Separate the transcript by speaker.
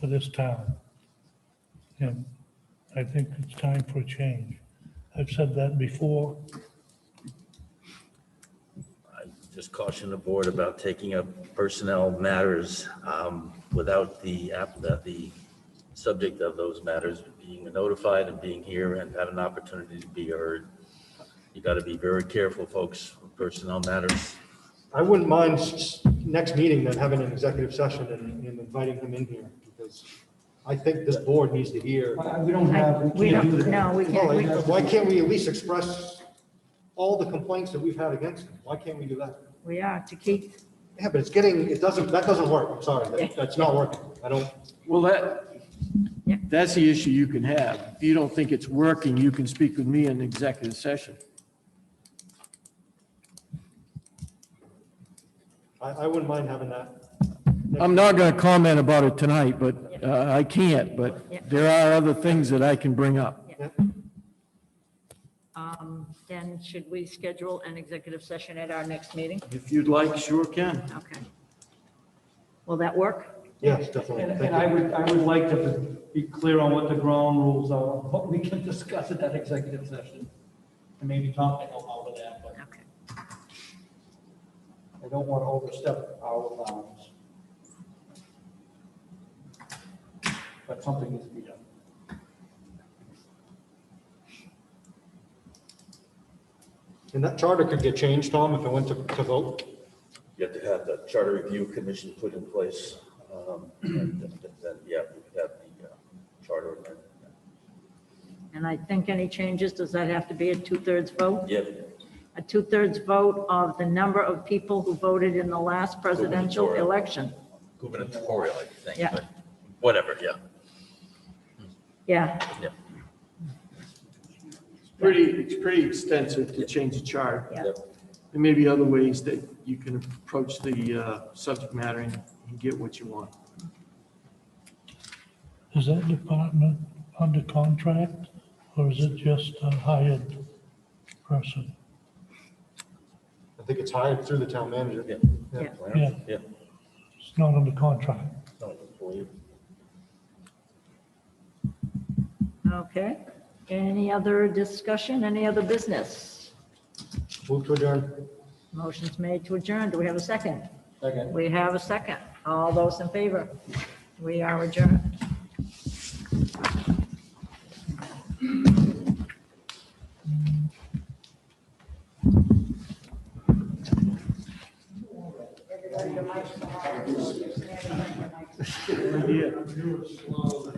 Speaker 1: for this town. And I think it's time for a change. I've said that before.
Speaker 2: Just caution the board about taking up personnel matters um, without the, app- the- the subject of those matters being notified and being here and have an opportunity to be heard. You got to be very careful, folks, with personnel matters.
Speaker 3: I wouldn't mind s- s- next meeting then having an executive session and and inviting him in here because I think this board needs to hear.
Speaker 4: Why- We don't have, Uh, we
Speaker 5: We
Speaker 4: can't do
Speaker 5: don't,
Speaker 4: that. Oh,
Speaker 5: no, we can't. we-
Speaker 3: Well, Why can't we at least express all the complaints that we've had against him? Why can't we do that?
Speaker 5: We are to keep,
Speaker 3: Yeah, but it's getting, it doesn't, that doesn't work. I'm sorry. That- That's not working. I don't,
Speaker 6: Well, that,
Speaker 5: Yeah.
Speaker 6: that's the issue you can have. If you don't think it's working, you can speak with me in executive session.
Speaker 3: I, I wouldn't mind having that.
Speaker 6: I'm not going to comment about it tonight, but uh, I can't, but
Speaker 5: Yeah.
Speaker 6: there are other things that I can bring up.
Speaker 3: Yeah.
Speaker 5: um, then should we schedule an executive session at our next meeting?
Speaker 6: If you'd like, sure can.
Speaker 5: Okay. Will that work?
Speaker 3: Yes,
Speaker 4: And
Speaker 3: definitely.
Speaker 4: and I
Speaker 3: Thank you.
Speaker 4: would, I would like to be clear on what the ground rules are, but we can discuss at that executive session. And maybe Tom can help out with that, but
Speaker 5: Okay.
Speaker 4: I don't want to overstep our bounds. But something needs to be done.
Speaker 3: And that charter could get changed, Tom, if it went to, to vote.
Speaker 2: You have to have the charter review commission put in place. um, and Then, then, yeah, we could have the uh, charter. amendment.
Speaker 5: And I think any changes, does that have to be a two-thirds vote?
Speaker 2: Yeah.
Speaker 5: A two-thirds vote of the number of people who voted in the last presidential election?
Speaker 2: Gubernatorial, I think,
Speaker 5: Yeah.
Speaker 2: but whatever, yeah.
Speaker 5: Yeah,
Speaker 6: Pretty, it's pretty extensive to change the chart.
Speaker 5: yeah.
Speaker 2: Yep.
Speaker 6: There may be other ways that you can approach the uh, subject matter and and get what you want.
Speaker 1: Is that department under contract or is it just a hired person?
Speaker 3: I think it's hired through the town manager.
Speaker 2: Yeah.
Speaker 5: Yeah.
Speaker 1: Yeah.
Speaker 2: Yeah.
Speaker 1: It's not under contract.
Speaker 2: No, I believe.
Speaker 5: Okay. Any other discussion, any other business?
Speaker 3: Move to adjourn.
Speaker 5: Motion's made to adjourn. Do we have a second?
Speaker 3: Second.
Speaker 5: We have a second. All those in favor? We are adjourned.
Speaker 6: Good idea.